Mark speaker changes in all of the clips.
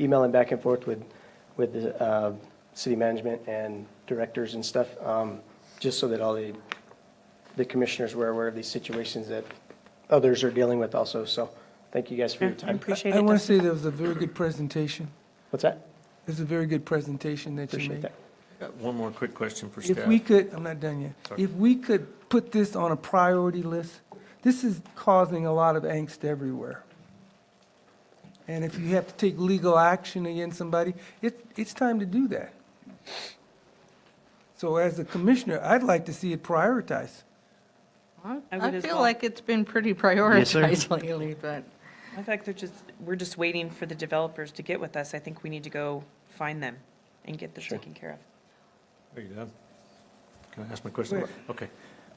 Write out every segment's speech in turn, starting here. Speaker 1: emailing back and forth with, with the uh, city management and directors and stuff, um, just so that all the, the commissioners were aware of these situations that others are dealing with also. So thank you guys for your
Speaker 2: I
Speaker 1: time.
Speaker 2: appreciate
Speaker 3: I want to
Speaker 2: it.
Speaker 3: say that was a very good presentation.
Speaker 1: What's that?
Speaker 3: It was a very good presentation that you
Speaker 1: Appreciate
Speaker 3: made.
Speaker 1: that.
Speaker 4: Got One more quick question for staff.
Speaker 3: If we could, I'm not done yet.
Speaker 4: Sorry.
Speaker 3: If we could put this on a priority list, this is causing a lot of angst everywhere. And if you have to take legal action against somebody, it, it's time to do that. So as a commissioner, I'd like to see it prioritized.
Speaker 5: I
Speaker 2: I would
Speaker 5: I
Speaker 2: as
Speaker 5: feel
Speaker 2: well.
Speaker 5: like it's been pretty prioritized lately, but
Speaker 2: In fact, they're just, we're just waiting for the developers to get with us. I think we need to go find them and get this taken care of.
Speaker 4: Are you done? Can I ask my question? Okay.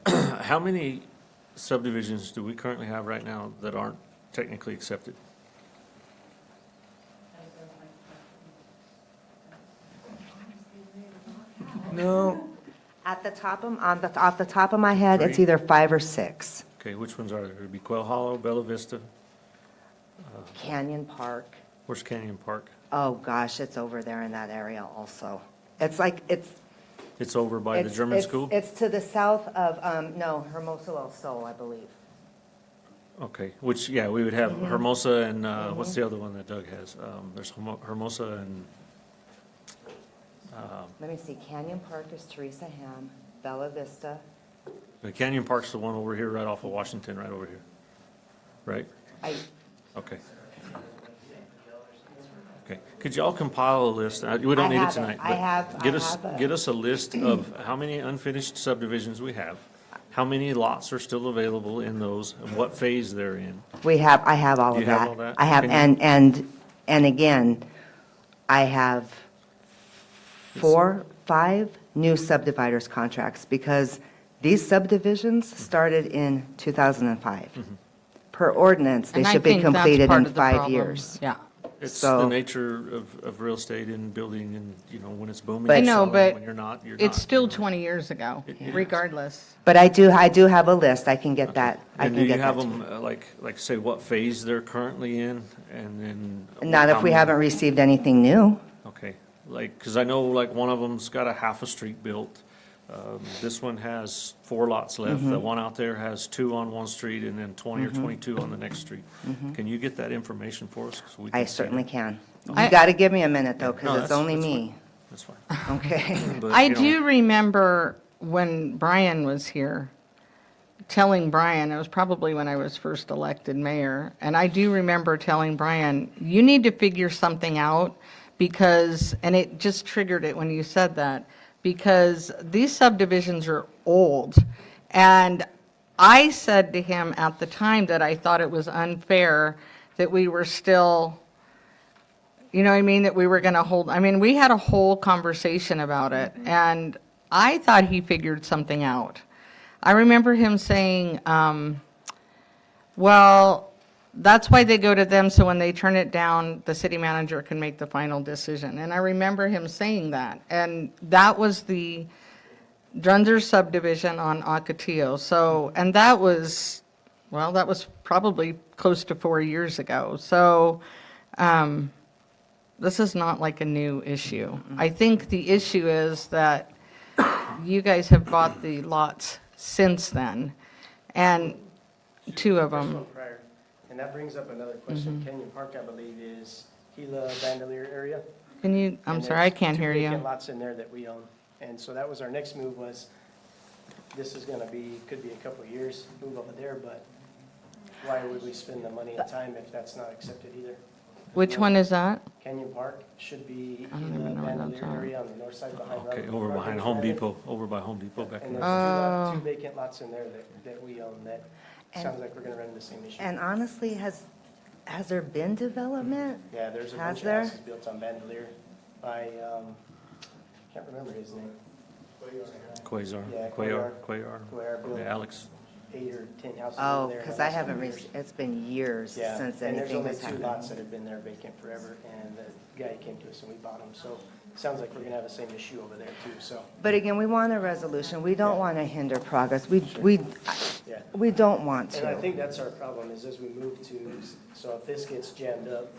Speaker 4: How many subdivisions do we currently have right now that aren't technically accepted?
Speaker 3: No,
Speaker 6: At the top of, on the, off the top of my head, it's
Speaker 4: Three.
Speaker 6: either five or six.
Speaker 4: Okay, which ones are there? It'd be Quail Hollow, Bella Vista,
Speaker 6: Canyon Park,
Speaker 4: Horse Canyon Park.
Speaker 6: oh gosh, it's over there in that area also. It's like, it's.
Speaker 4: It's over by the
Speaker 6: it's-
Speaker 4: German
Speaker 6: it's-
Speaker 4: school?
Speaker 6: It's to the south of, um, no, Hermoso El Sol, I believe.
Speaker 4: Okay, which, yeah, we would have
Speaker 6: Mm-hmm.
Speaker 4: Hermosa and, uh, what's the other one that Doug has? Um, There's Hermo- Hermosa and,
Speaker 6: Let me see, Canyon Park is Teresa Ham, Bella Vista.
Speaker 4: the Canyon Park's the one over here, right off of Washington, right over here. Right?
Speaker 6: I,
Speaker 4: Okay. Okay, could y'all compile a list, Uh, we don't
Speaker 6: I
Speaker 4: need it
Speaker 6: have it.
Speaker 4: tonight.
Speaker 6: I
Speaker 4: but
Speaker 6: have- I
Speaker 4: Get us,
Speaker 6: have it.
Speaker 4: get us a list of how many unfinished subdivisions we have, how many lots are still available in those, and what phase they're in.
Speaker 6: We have, I have all
Speaker 4: Do
Speaker 6: of
Speaker 4: you have
Speaker 6: that.
Speaker 4: all that?
Speaker 6: I have,
Speaker 4: Can
Speaker 6: and, and, and again, I have four, five new subdividers contracts because these subdivisions started in 2005.
Speaker 4: Mm-hmm.
Speaker 6: Per ordinance, they
Speaker 5: and I
Speaker 6: should be
Speaker 5: think that's
Speaker 6: completed
Speaker 5: part
Speaker 6: in
Speaker 5: of the
Speaker 6: five
Speaker 5: problem.
Speaker 6: years.
Speaker 5: Yeah.
Speaker 4: It's the
Speaker 6: So-
Speaker 4: nature of, of real estate and building and, you know, when it's booming,
Speaker 5: I
Speaker 4: you're
Speaker 5: know,
Speaker 4: selling,
Speaker 5: but
Speaker 4: when you're not, you're not.
Speaker 5: it's still
Speaker 4: you know.
Speaker 5: 20 years ago, regardless.
Speaker 6: But I do, I do have a list. I can get that, I
Speaker 4: And
Speaker 6: can
Speaker 4: do you
Speaker 6: get that.
Speaker 4: have
Speaker 6: to you.
Speaker 4: them, uh, like, like say what phase they're currently in, and then?
Speaker 6: Not
Speaker 4: how
Speaker 6: if we
Speaker 4: many-
Speaker 6: haven't received anything new.
Speaker 4: Okay, like, because I know like one of them's got a half a street built. Um, This one has four lots left. The one out there has two on one street and then 20 or 22 on the next street. Can you get that information for us? 'Cause we
Speaker 6: I
Speaker 4: can send
Speaker 6: certainly
Speaker 4: it.
Speaker 6: can.
Speaker 5: I-
Speaker 6: You got to give me a minute though,
Speaker 4: No,
Speaker 6: because it's
Speaker 4: that's-
Speaker 6: only
Speaker 4: that's fine.
Speaker 6: me,
Speaker 4: That's fine.
Speaker 6: okay?
Speaker 4: But,
Speaker 5: I
Speaker 4: you know,
Speaker 5: do remember when Brian was here, telling Brian, it was probably when I was first elected mayor, and I do remember telling Brian, you need to figure something out because, and it just triggered it when you said that, because these subdivisions are old. And I said to him at the time that I thought it was unfair that we were still you know what I mean? That we were going to hold, I mean, we had a whole conversation about it, and I thought he figured something out. I remember him saying, um, well, that's why they go to them, so when they turn it down, the city manager can make the final decision. And I remember him saying that, and that was the Drunzer subdivision on Ocotillo. So, and that was, well, that was probably close to four years ago. So, um, this is not like a new issue. I think the issue is that you guys have bought the lots since then, and two of
Speaker 1: First
Speaker 5: them.
Speaker 1: one prior. And that brings up another question. Canyon Park, I believe, is Gila Bandelier area.
Speaker 5: Can you, I'm
Speaker 1: And
Speaker 5: sorry, I
Speaker 1: there's
Speaker 5: can't
Speaker 1: two
Speaker 5: hear
Speaker 1: vacant
Speaker 5: you.
Speaker 1: Lots in there that we own. And so that was our next move was, this is gonna be, could be a couple of years, move over there, but why would we spend the money and time if that's not accepted either?
Speaker 5: Which one is that?
Speaker 1: Canyon Park should be
Speaker 5: I don't
Speaker 1: in the
Speaker 5: even know where that's
Speaker 1: Bandelier
Speaker 5: at.
Speaker 1: area on the north side behind.
Speaker 4: Okay,
Speaker 1: Robert
Speaker 4: over
Speaker 1: Parker's
Speaker 4: behind Home
Speaker 1: Landing.
Speaker 4: Depot, over by Home Depot back
Speaker 1: And
Speaker 4: there.
Speaker 1: there's two lot-
Speaker 5: Oh.
Speaker 1: two vacant lots in there that, that we own that sounds like we're gonna run into the same issue.
Speaker 6: And honestly, has, has there been development?
Speaker 1: Yeah, there's a
Speaker 6: Has
Speaker 1: bunch of
Speaker 6: there?
Speaker 1: houses built on Bandelier by, um, can't remember his name,
Speaker 4: Quasar,
Speaker 1: Yeah,
Speaker 4: Quayar,
Speaker 1: Quayar.
Speaker 4: Quayar.
Speaker 1: Quayar built-
Speaker 4: Yeah, Alex.
Speaker 1: eight or 10 houses
Speaker 6: Oh,
Speaker 1: in there.
Speaker 6: because I haven't, re- it's been years
Speaker 1: Yeah,
Speaker 6: since
Speaker 1: and there's
Speaker 6: anything
Speaker 1: only
Speaker 6: has
Speaker 1: two lots
Speaker 6: happened.
Speaker 1: that have been there vacant forever, and the guy came to us and we bought them, so it sounds like we're gonna have the same issue over there too, so,
Speaker 6: But again, we want a resolution. We don't
Speaker 1: Yeah.
Speaker 6: want to hinder progress. We, we,
Speaker 1: yeah.
Speaker 6: we don't want
Speaker 1: And I
Speaker 6: to. Mm-hmm.
Speaker 1: think that's our problem, is as we move to, so if this gets jammed up,